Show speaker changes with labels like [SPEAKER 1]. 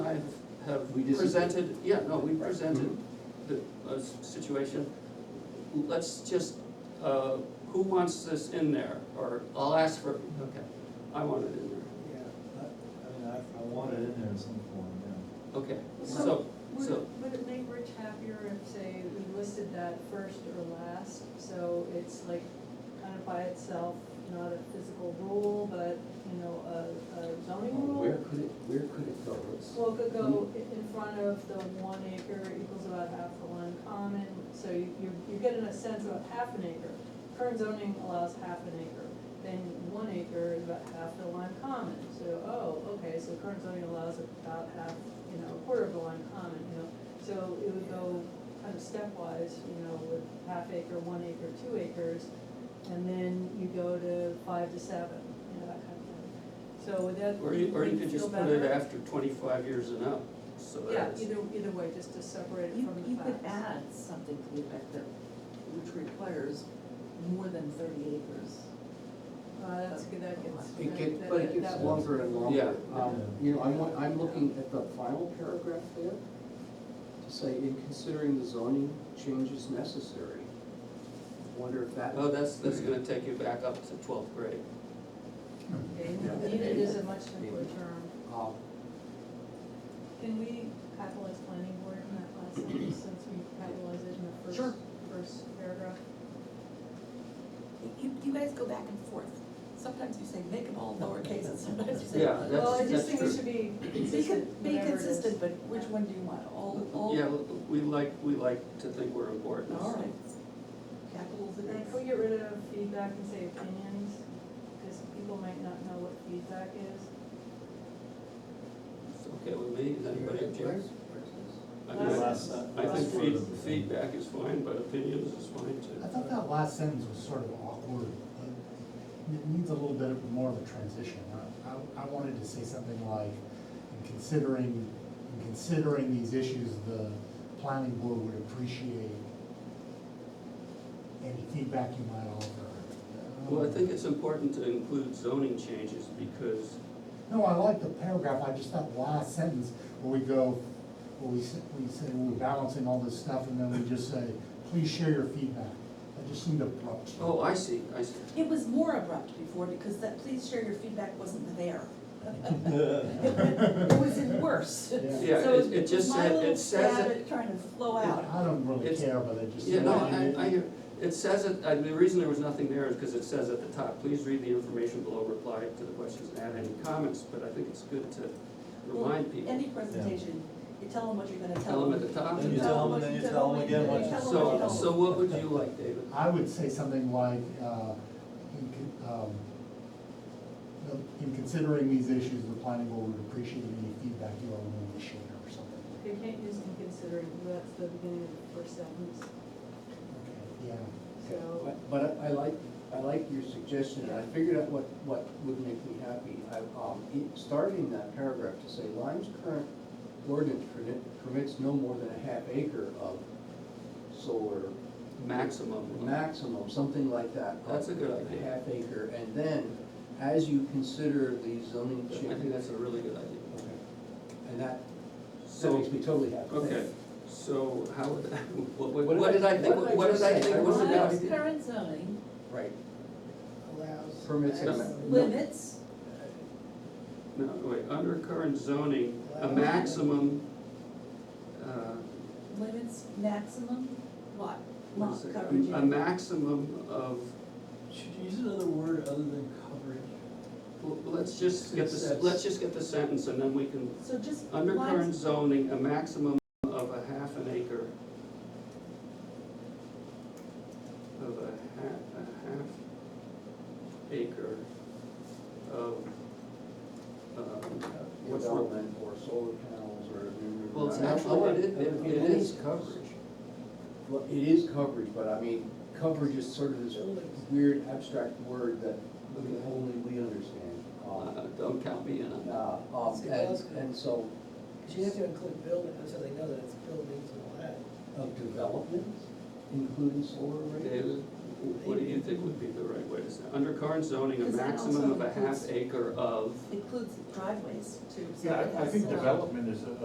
[SPEAKER 1] We disagree.
[SPEAKER 2] presented, yeah, no, we
[SPEAKER 1] Right. Mm-hmm.
[SPEAKER 2] presented the, a s- situation. Let's just, uh, who wants this in there, or I'll ask for, okay, I want it in there,
[SPEAKER 3] Yeah, I, I mean, I, I want it in there in some form, yeah.
[SPEAKER 2] okay, so,
[SPEAKER 4] So, Would
[SPEAKER 2] so,
[SPEAKER 4] it, would it make Rich happier if, say, we listed that first or last, so it's like kind of by itself, not a physical rule, but, you know, a, a zoning
[SPEAKER 1] Well, Where
[SPEAKER 4] rule?
[SPEAKER 1] could it, where could it go? Let's-
[SPEAKER 4] Well, it could go i- in front of the one acre equals about half the land common, so you, you're, you're getting a sense of half an acre. Current zoning allows half an acre, then one acre is about half the land common, so, oh, okay, so current zoning allows about half, you know, a quarter of the land common, you know. So it would go kind of stepwise, you know, with half acre, one acre, two acres, and then you go to five to seven, you know, that kind of thing. So would that,
[SPEAKER 2] or you, or you
[SPEAKER 4] would
[SPEAKER 2] could
[SPEAKER 4] feel
[SPEAKER 2] just put it
[SPEAKER 4] better?
[SPEAKER 2] after twenty-five years and up, so
[SPEAKER 4] Yeah,
[SPEAKER 2] that it's-
[SPEAKER 4] either, either way, just to separate it
[SPEAKER 5] You,
[SPEAKER 4] from
[SPEAKER 5] you
[SPEAKER 4] the
[SPEAKER 5] could
[SPEAKER 4] facts.
[SPEAKER 5] add something to the effect that, which requires more than thirty acres.
[SPEAKER 4] Uh, that's good, that gets.
[SPEAKER 1] It
[SPEAKER 4] that-
[SPEAKER 1] get, but
[SPEAKER 4] that-
[SPEAKER 1] it gets
[SPEAKER 4] that-
[SPEAKER 1] longer and longer.
[SPEAKER 2] Yeah.
[SPEAKER 1] Um, You know, I'm, wa- I'm looking at the final paragraph there, to say, in considering the zoning changes necessary. Wonder if that.
[SPEAKER 2] oh, that's, that's gonna take you back up to twelfth grade.
[SPEAKER 4] Okay, Needed is a much simpler term.
[SPEAKER 1] um,
[SPEAKER 4] Can we capitalize planning board in that last sentence, since we capitalized it in the first,
[SPEAKER 5] Sure.
[SPEAKER 4] first paragraph?
[SPEAKER 5] You, you guys go back and forth. Sometimes you say make them all lowercase and sometimes you say.
[SPEAKER 2] Yeah, that's-
[SPEAKER 4] Well, I just
[SPEAKER 2] that's
[SPEAKER 4] think it
[SPEAKER 2] true.
[SPEAKER 4] should be
[SPEAKER 5] Be, con-
[SPEAKER 4] consistent,
[SPEAKER 5] be
[SPEAKER 4] whatever it is.
[SPEAKER 5] consistent, but which one do you want? All, all?
[SPEAKER 2] Yeah, we like, we like to think we're important,
[SPEAKER 5] All
[SPEAKER 2] so,
[SPEAKER 5] right. Capitals it
[SPEAKER 4] And can we
[SPEAKER 5] is.
[SPEAKER 4] get rid of feedback and say opinions? Because people might not know what feedback is.
[SPEAKER 2] it's okay with me, is anybody object? I
[SPEAKER 4] Last-
[SPEAKER 2] mean,
[SPEAKER 3] Last, uh,
[SPEAKER 2] I
[SPEAKER 3] last
[SPEAKER 2] think
[SPEAKER 3] word
[SPEAKER 2] feed,
[SPEAKER 3] of the-
[SPEAKER 2] feedback is fine, but opinions is fine
[SPEAKER 6] I
[SPEAKER 2] too.
[SPEAKER 6] thought that last sentence was sort of awkward. uh, It needs a little bit more of a transition. I- I, I wanted to say something like, in considering, in considering these issues, the planning board would appreciate any feedback you might offer.
[SPEAKER 2] Well, I think it's important to include zoning changes because
[SPEAKER 6] No, I like the paragraph, I just that last sentence where we go, where we, s- we say, we're balancing all this stuff, and then we just say, please share your feedback. That just seemed abrupt.
[SPEAKER 2] Oh, I see, I see.
[SPEAKER 5] It was more abrupt before because that please share your feedback wasn't there. It was in worse.
[SPEAKER 6] Yeah.
[SPEAKER 2] Yeah,
[SPEAKER 5] So
[SPEAKER 2] it, it just
[SPEAKER 5] my
[SPEAKER 2] said,
[SPEAKER 5] little
[SPEAKER 2] it says
[SPEAKER 5] stab
[SPEAKER 2] it,
[SPEAKER 5] at Trying to flow out.
[SPEAKER 6] I don't really
[SPEAKER 2] It's-
[SPEAKER 6] care, but it just.
[SPEAKER 2] yeah, no, I, I hear, it says it, and the reason there was nothing there is because it says at the top, please read the information below, reply to the questions and add any comments, but I think it's good to
[SPEAKER 5] Well,
[SPEAKER 2] remind people.
[SPEAKER 5] Any presentation, you tell them what you're gonna tell
[SPEAKER 2] Tell them
[SPEAKER 5] them.
[SPEAKER 2] at the top.
[SPEAKER 3] Then you tell them, then you tell them again what you.
[SPEAKER 5] Tell them what you
[SPEAKER 2] So, so what would you like, David?
[SPEAKER 6] I would say something like, uh, in, con- um, the- in considering these issues, the planning board would appreciate any feedback you are willing to share or something.
[SPEAKER 4] They can't use inconsiderate, that's the beginning of the first sentence,
[SPEAKER 6] Okay, Yeah,
[SPEAKER 4] so.
[SPEAKER 1] But- But I I like, I like your suggestion, and I figured out what, what would make me happy. I, um, it- starting that paragraph to say, Lyme's current ordinance permit- permits no more than a half acre of solar
[SPEAKER 2] Maximum.
[SPEAKER 1] maximum, something like that.
[SPEAKER 2] That's a good
[SPEAKER 1] A
[SPEAKER 2] idea.
[SPEAKER 1] half acre, and then, as you consider the zoning
[SPEAKER 2] I think
[SPEAKER 1] change.
[SPEAKER 2] that's a really good idea.
[SPEAKER 1] Okay. And that, that
[SPEAKER 2] So,
[SPEAKER 1] makes me totally happy.
[SPEAKER 2] okay, so how, would- what,
[SPEAKER 1] What
[SPEAKER 2] what,
[SPEAKER 1] did
[SPEAKER 2] what did
[SPEAKER 1] I-
[SPEAKER 2] I think,
[SPEAKER 1] what did I
[SPEAKER 2] what did
[SPEAKER 1] just
[SPEAKER 2] I
[SPEAKER 1] say?
[SPEAKER 2] think
[SPEAKER 1] I
[SPEAKER 2] was a
[SPEAKER 1] wrote
[SPEAKER 2] good
[SPEAKER 1] down.
[SPEAKER 5] Lyme's
[SPEAKER 2] idea?
[SPEAKER 5] current zoning
[SPEAKER 1] Right,
[SPEAKER 5] allows.
[SPEAKER 1] Permits and-
[SPEAKER 5] us Limits,
[SPEAKER 2] No, wait, under current zoning, a maximum, uh,
[SPEAKER 5] limits maximum lot,
[SPEAKER 2] One
[SPEAKER 5] lot
[SPEAKER 2] second.
[SPEAKER 5] coverage.
[SPEAKER 2] A maximum of,
[SPEAKER 3] Should you use another word other than coverage?
[SPEAKER 2] well, let's just get the,
[SPEAKER 3] That's-
[SPEAKER 2] let's just get the sentence and then we can,
[SPEAKER 5] So just.
[SPEAKER 2] under
[SPEAKER 5] lines-
[SPEAKER 2] current zoning, a maximum of a half an acre. Of a half, a half acre of, um, What's wrong?
[SPEAKER 1] development or solar panels or.
[SPEAKER 2] Well, it's
[SPEAKER 1] I- I
[SPEAKER 2] actually-
[SPEAKER 1] want-
[SPEAKER 2] uh, oh, it- it-
[SPEAKER 1] I mean,
[SPEAKER 2] it
[SPEAKER 1] that
[SPEAKER 2] is
[SPEAKER 1] coverage. Well, it is coverage, but I mean, coverage is sort of this weird abstract word that only we understand. Um,
[SPEAKER 2] uh, don't count me in on that.
[SPEAKER 1] uh, um, And, and so,
[SPEAKER 7] Because you have to include buildings, so they know that it's buildings and all that.
[SPEAKER 1] of developments, including solar arrays.
[SPEAKER 2] David, what do you think would be the right way to say, under current zoning, a
[SPEAKER 5] Does that
[SPEAKER 2] maximum
[SPEAKER 5] also
[SPEAKER 2] of a half
[SPEAKER 5] includes-
[SPEAKER 2] acre of.
[SPEAKER 5] Includes driveways too. so
[SPEAKER 8] Yeah,
[SPEAKER 5] it
[SPEAKER 8] I- I
[SPEAKER 5] has,
[SPEAKER 8] think
[SPEAKER 5] uh,
[SPEAKER 8] development is a